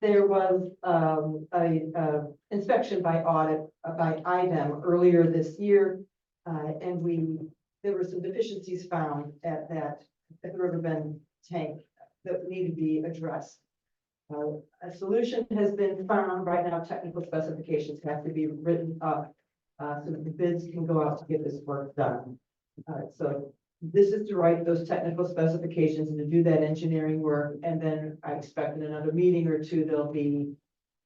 there was um a uh inspection by audit uh, by IDEM earlier this year. Uh, and we, there were some deficiencies found at that, at the Riverbend tank that need to be addressed. Uh, a solution has been found. Right now, technical specifications have to be written up. uh, so that the bids can go out to get this work done. Uh, so this is to write those technical specifications and to do that engineering work, and then I expect in another meeting or two, there'll be.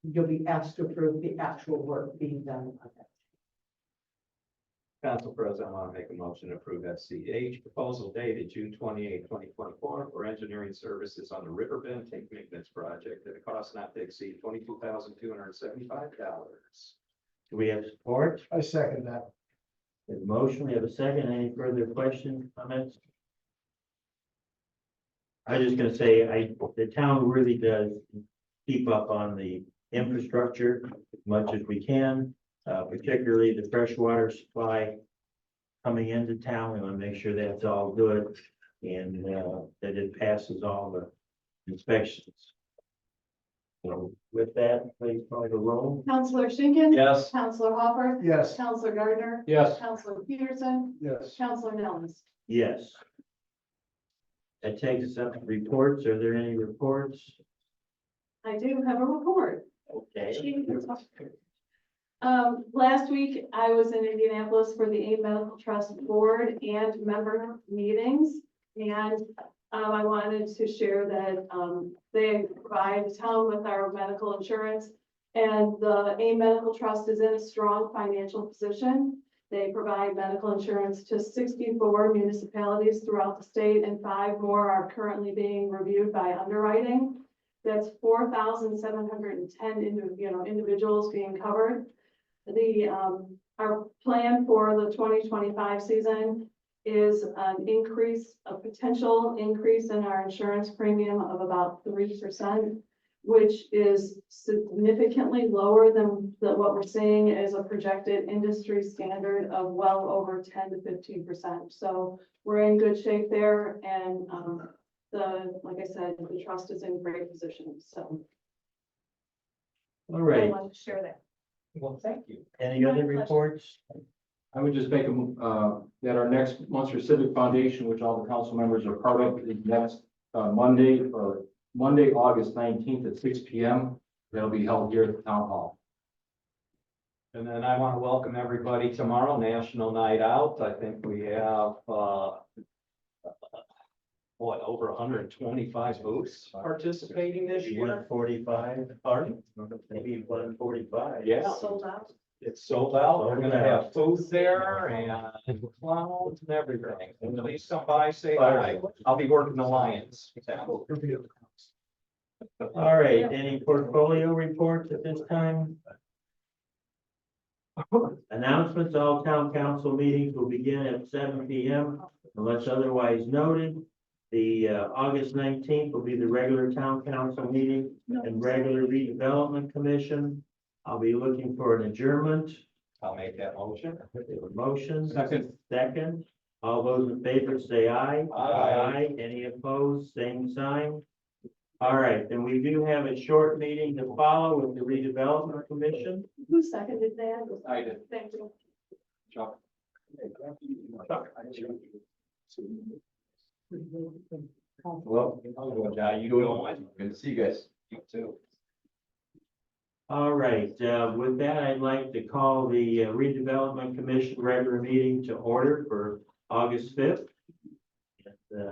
You'll be asked to approve the actual work being done on that. Council President, I want to make a motion to approve FCH proposal dated June 28, 2024, for engineering services on the Riverbend Tank Maintenance Project at a cost not to exceed twenty-two thousand two hundred and seventy-five dollars. Do we have support? I second that. We have a motion, we have a second. Any further questions, comments? I was just gonna say, I, the town really does keep up on the infrastructure as much as we can, uh, particularly the freshwater supply coming into town. We wanna make sure that's all good and, uh, that it passes all the inspections. So with that, please call the roll. Counselor Schinkin. Yes. Counselor Hopper. Yes. Counselor Gardner. Yes. Counselor Peterson. Yes. Counselor Nellens. Yes. That takes us up to reports. Are there any reports? I do have a report. Okay. Um, last week, I was in Indianapolis for the A Medical Trust Board and member meetings. And, um, I wanted to share that, um, they provide the town with our medical insurance. And the A Medical Trust is in a strong financial position. They provide medical insurance to sixty-four municipalities throughout the state and five more are currently being reviewed by underwriting. That's four thousand seven hundred and ten you know, individuals being covered. The, um, our plan for the twenty twenty-five season is an increase, a potential increase in our insurance premium of about three percent, which is significantly lower than, than what we're seeing as a projected industry standard of well over ten to fifteen percent. So we're in good shape there and, um, the, like I said, the trust is in great position, so All I right. want to share that. Well, thank you. Any other reports? I would just make a, mo- uh, that our next Munster Civic Foundation, which all the council members are part of, is next, uh, Monday, or Monday, August nineteenth at six P M. That'll be held here at the town hall. And then I want to welcome everybody tomorrow, National Night Out. I think we have, uh, what, over hundred and twenty-five booths participating this One year? forty-five, Pardon? maybe one forty-five. Yeah. Sold out. It's sold out. We're Sold gonna out. have food there and clowns and everything. Please come by, say hi. Fire. I'll be working the Lions. All right. Any portfolio reports at this time? Announcements, all town council meetings will begin at seven P M unless otherwise noted. The uh, August nineteenth will be the regular town council meeting and regular redevelopment commission. I'll be looking for an adjournment, I'll make that motion. motions. Second. Second, all those in favor say aye. Aye. Any opposed, same sign. All right, then we do have a short meeting to follow with the redevelopment commission. Who seconded that? I did. Thank you. Chuck. Well, you do it online. Good to see you guys. You too. All right, uh, with that, I'd like to call the uh, redevelopment commission regular meeting to order for August fifth. uh,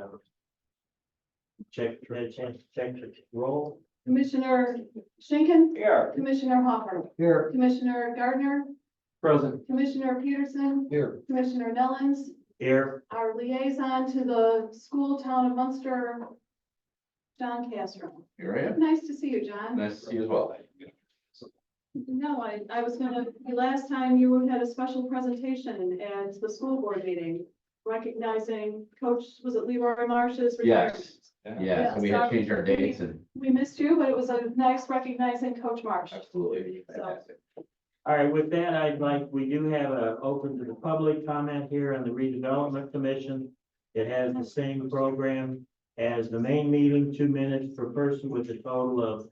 Check, uh, check, check, roll. Commissioner Schinkin, Here. Commissioner Hopper, Here. Commissioner Gardner, Present. Commissioner Peterson, Here. Commissioner Nellens, Here, our liaison to the school town of Munster, John Castro. Here I Nice to see you, John. Nice to see you as well. No, I, I was gonna, the last time you had a special presentation at the school board meeting recognizing Coach, was it Leroy Marsh's retirement? Yes, yeah, so we had changed our dates and We missed you, but it was a nice recognizing Coach Marsh. absolutely. Fantastic. all right, with that, I'd like, we do have a open to the public comment here on the redevelopment commission. It has the same program as the main meeting, two minutes per person with a total of